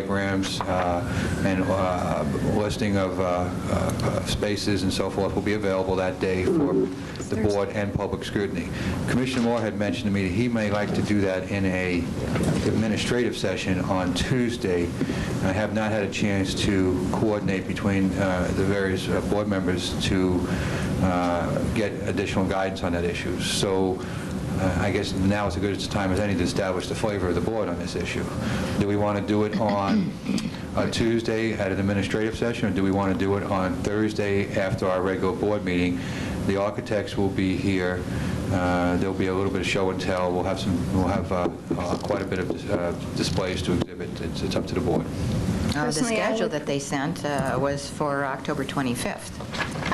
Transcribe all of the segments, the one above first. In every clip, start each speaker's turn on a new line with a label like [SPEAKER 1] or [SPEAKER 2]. [SPEAKER 1] diagrams uh, and uh, listing of uh, uh, spaces and so forth will be available that day for the board and public scrutiny. Commissioner Moore had mentioned to me that he may like to do that in a administrative session on Tuesday. I have not had a chance to coordinate between uh, the various uh, board members to uh, get additional guidance on that issue. So uh, I guess now is as good as time as any to establish the flavor of the board on this issue. Do we want to do it on a Tuesday at an administrative session, or do we want to do it on Thursday after our regular board meeting? The architects will be here, Uh, there'll be a little bit of show and tell, we'll have some, we'll have uh, uh, quite a bit of uh, displays to exhibit, It's- it's up to the board.
[SPEAKER 2] Uh, The
[SPEAKER 3] Personally, I
[SPEAKER 2] schedule
[SPEAKER 3] would-
[SPEAKER 2] that they sent uh, was for October 25th.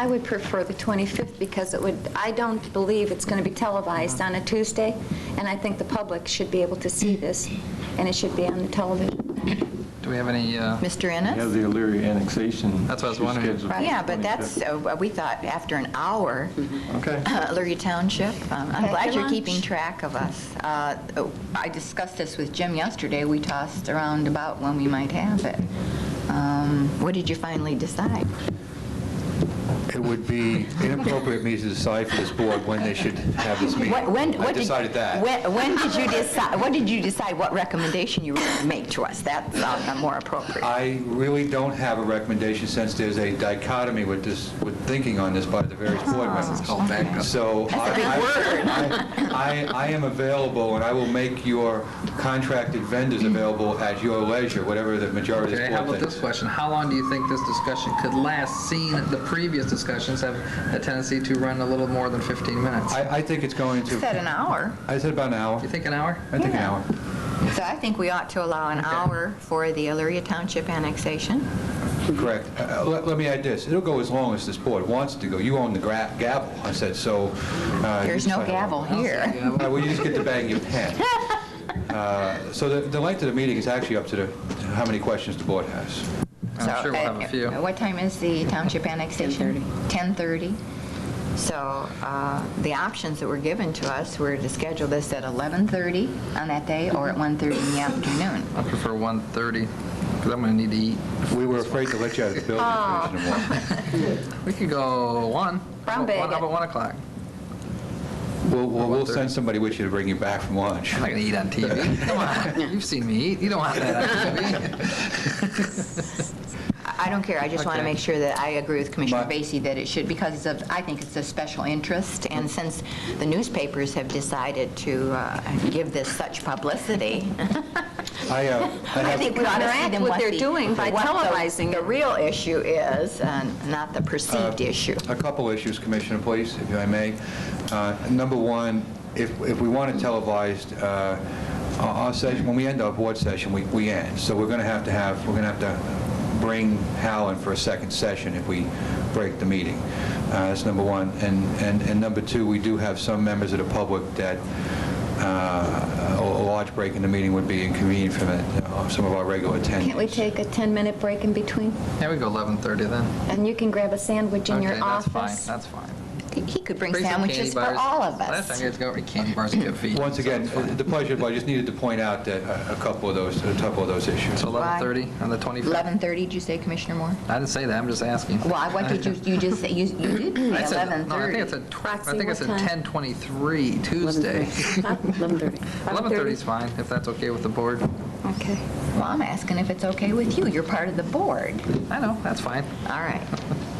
[SPEAKER 3] I would prefer the 25th because it would, I don't believe it's going to be televised on a Tuesday, and I think the public should be able to see this, and it should be on the television.
[SPEAKER 4] Do we have any, uh,
[SPEAKER 2] Mr.
[SPEAKER 5] We have
[SPEAKER 2] Ennis?
[SPEAKER 5] the Illyria annexation.
[SPEAKER 4] That's what I was wondering.
[SPEAKER 5] scheduled for the
[SPEAKER 2] Yeah, but that's,
[SPEAKER 5] 25th.
[SPEAKER 2] uh, we thought after an hour,
[SPEAKER 5] Okay.
[SPEAKER 2] Lurie Township, um, I'm
[SPEAKER 3] Pack
[SPEAKER 2] glad
[SPEAKER 3] your
[SPEAKER 2] you're
[SPEAKER 3] lunch.
[SPEAKER 2] keeping track of us. Uh, oh, I discussed this with Jim yesterday, we tossed around about when we might have it. Um, What did you finally decide?
[SPEAKER 1] It would be inappropriate for me to decide for this board when they should have this meeting.
[SPEAKER 2] What- When,
[SPEAKER 1] I
[SPEAKER 2] what did...
[SPEAKER 1] decided that.
[SPEAKER 2] When when did you decide, what did you decide, what recommendation you were going to make to us? That's uh, more appropriate.
[SPEAKER 1] I really don't have a recommendation since there's a dichotomy with this, with thinking on this by the various board
[SPEAKER 2] Oh,
[SPEAKER 1] members.
[SPEAKER 4] called backup.
[SPEAKER 1] So I- I, I I am available, and I will make your contracted vendors available at your leisure, whatever the majority of
[SPEAKER 4] Okay,
[SPEAKER 1] this
[SPEAKER 4] how
[SPEAKER 1] board
[SPEAKER 4] about
[SPEAKER 1] thinks.
[SPEAKER 4] this question? How long do you think this discussion could last, seeing that the previous discussions have a tendency to run a little more than 15 minutes?
[SPEAKER 1] I, I think it's going
[SPEAKER 2] You
[SPEAKER 1] to,
[SPEAKER 2] said an hour.
[SPEAKER 1] I said about an hour.
[SPEAKER 4] You think an hour?
[SPEAKER 1] I think an hour.
[SPEAKER 2] So I think we ought to allow an hour for the Illyria Township annexation.
[SPEAKER 1] Correct. Uh, Let let me add this, it'll go as long as this board wants to go. You own the gra- gavel, I said, so... uh, you
[SPEAKER 2] There's no
[SPEAKER 1] decide.
[SPEAKER 2] gavel here.
[SPEAKER 1] All right, Uh, well, you just get to bang your pen. Uh, So the the length of the meeting is actually up to the, to how many questions the board has.
[SPEAKER 2] So,
[SPEAKER 4] I'm sure we'll
[SPEAKER 2] uh,
[SPEAKER 4] have a few.
[SPEAKER 2] uh, What time is the township annexation? 10:30. 10:30. So uh, the options that were given to us were to schedule this at 11:30 on that day or at 1:30 in the afternoon.
[SPEAKER 4] I prefer 1:30, because I'm going to need to eat.
[SPEAKER 1] We were afraid to let you out of the building, Commissioner Moore.
[SPEAKER 4] We could go 1. How
[SPEAKER 3] Brown
[SPEAKER 4] about
[SPEAKER 3] bag.
[SPEAKER 4] one- how about 1 o'clock?
[SPEAKER 1] We'll, we'll we'll send somebody with you to bring you back from lunch.
[SPEAKER 4] I'm not going to eat on TV. Come on, you've seen me eat, you don't want that on TV.
[SPEAKER 2] I I don't care, I just want to
[SPEAKER 4] Okay.
[SPEAKER 2] make sure that I agree with Commissioner
[SPEAKER 1] My-
[SPEAKER 2] Vacy that it should, because of, I think it's a special interest, and since the newspapers have decided to uh, give this such publicity,
[SPEAKER 1] I, uh, I
[SPEAKER 2] I
[SPEAKER 1] have-
[SPEAKER 2] think we ought to see
[SPEAKER 3] Counteract
[SPEAKER 2] them
[SPEAKER 3] what
[SPEAKER 2] what
[SPEAKER 3] they're
[SPEAKER 2] the-
[SPEAKER 3] doing by
[SPEAKER 2] what the-
[SPEAKER 3] televising
[SPEAKER 2] The
[SPEAKER 3] it.
[SPEAKER 2] real issue is, and not the perceived issue.
[SPEAKER 1] A couple issues, Commissioner, please, if I may. Uh, Number one, if if we want it televised, uh, our our session, when we end our board session, we we end. So we're going to have to have, we're going to have to bring Hal in for a second session if we break the meeting. Uh, That's number one. And and and number two, we do have some members of the public that uh, a a large break in the meeting would be inconvenient for them, uh, some of our regular attendees.
[SPEAKER 3] Can't we take a 10-minute break in between?
[SPEAKER 4] Yeah, we go 11:30 then.
[SPEAKER 3] And you can grab a sandwich in your
[SPEAKER 4] Okay, that's
[SPEAKER 3] office.
[SPEAKER 4] fine, that's fine.
[SPEAKER 2] He could bring
[SPEAKER 4] Bring some candy
[SPEAKER 2] sandwiches for
[SPEAKER 4] bars.
[SPEAKER 2] all of
[SPEAKER 4] Last time
[SPEAKER 2] us.
[SPEAKER 4] you guys got candy bars and get feet.
[SPEAKER 1] Once again, uh, the pleasure, but I just needed to point out that uh, a a couple of those, a couple of those issues.
[SPEAKER 4] So 11:30 on the 25th?
[SPEAKER 2] 11:30, did you say, Commissioner Moore?
[SPEAKER 4] I didn't say that, I'm just asking.
[SPEAKER 2] Well, I- what did you, you just say, you you did say
[SPEAKER 4] I said-
[SPEAKER 2] 11:30.
[SPEAKER 4] No, I think it's a, tw- I
[SPEAKER 6] Roxy,
[SPEAKER 4] think it's
[SPEAKER 6] what
[SPEAKER 4] a
[SPEAKER 6] time?
[SPEAKER 4] 10:23 Tuesday.
[SPEAKER 6] 11:30.
[SPEAKER 4] 11:30 is fine, if that's okay with the board.
[SPEAKER 6] Okay.
[SPEAKER 2] Well, I'm asking if it's okay with you, you're part of the board.
[SPEAKER 4] I know, that's fine.
[SPEAKER 2] All right,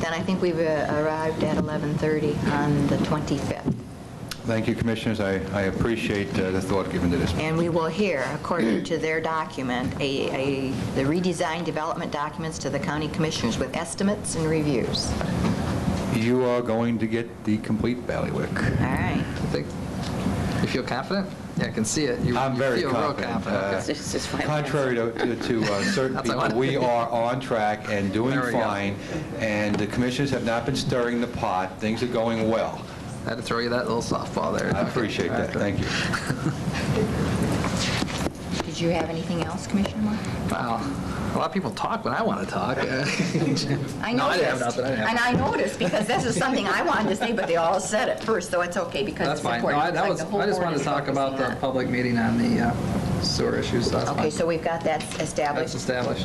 [SPEAKER 2] then I think we've uh, arrived at 11:30 on the 25th.
[SPEAKER 1] Thank you, Commissioners. I I appreciate uh, the thought given to this.
[SPEAKER 2] And we will hear, according to their document, a, a, the redesigned development documents to the county commissioners with estimates and reviews.
[SPEAKER 1] You are going to get the complete bailiwick.
[SPEAKER 2] All right.
[SPEAKER 4] I think, you feel confident? Yeah, I can see it. You-
[SPEAKER 1] I'm very
[SPEAKER 4] You feel real
[SPEAKER 1] confident,
[SPEAKER 4] confident, okay.
[SPEAKER 1] uh,
[SPEAKER 6] This is fine.
[SPEAKER 1] Contrary to to, uh, certain
[SPEAKER 4] That's what I
[SPEAKER 1] people, we
[SPEAKER 4] wanted.
[SPEAKER 1] are on track and doing
[SPEAKER 4] There we go.
[SPEAKER 1] fine, and the Commissioners have not been stirring the pot. Things are going well.
[SPEAKER 4] I had to throw you that little softball there.
[SPEAKER 1] I appreciate that. Thank you.
[SPEAKER 2] Did you have anything else, Commissioner Moore?
[SPEAKER 4] Wow, a lot of people talk when I want to talk.
[SPEAKER 2] I
[SPEAKER 4] No, I didn't have
[SPEAKER 2] noticed.
[SPEAKER 4] nothing, I didn't have
[SPEAKER 2] And I noticed, because this is something I wanted to say, but they all said it first, so it's okay, because
[SPEAKER 4] That's
[SPEAKER 2] it's
[SPEAKER 4] fine.
[SPEAKER 2] important.
[SPEAKER 4] No, I
[SPEAKER 2] It's
[SPEAKER 4] that
[SPEAKER 2] like
[SPEAKER 4] was,
[SPEAKER 2] the whole
[SPEAKER 4] I just
[SPEAKER 2] board
[SPEAKER 4] wanted to
[SPEAKER 2] is
[SPEAKER 4] talk about
[SPEAKER 2] focusing
[SPEAKER 4] the
[SPEAKER 2] on it.
[SPEAKER 4] public meeting on the uh,
[SPEAKER 2] sewer issues last month.
[SPEAKER 4] Okay, so we've got that established.
[SPEAKER 2] That's established.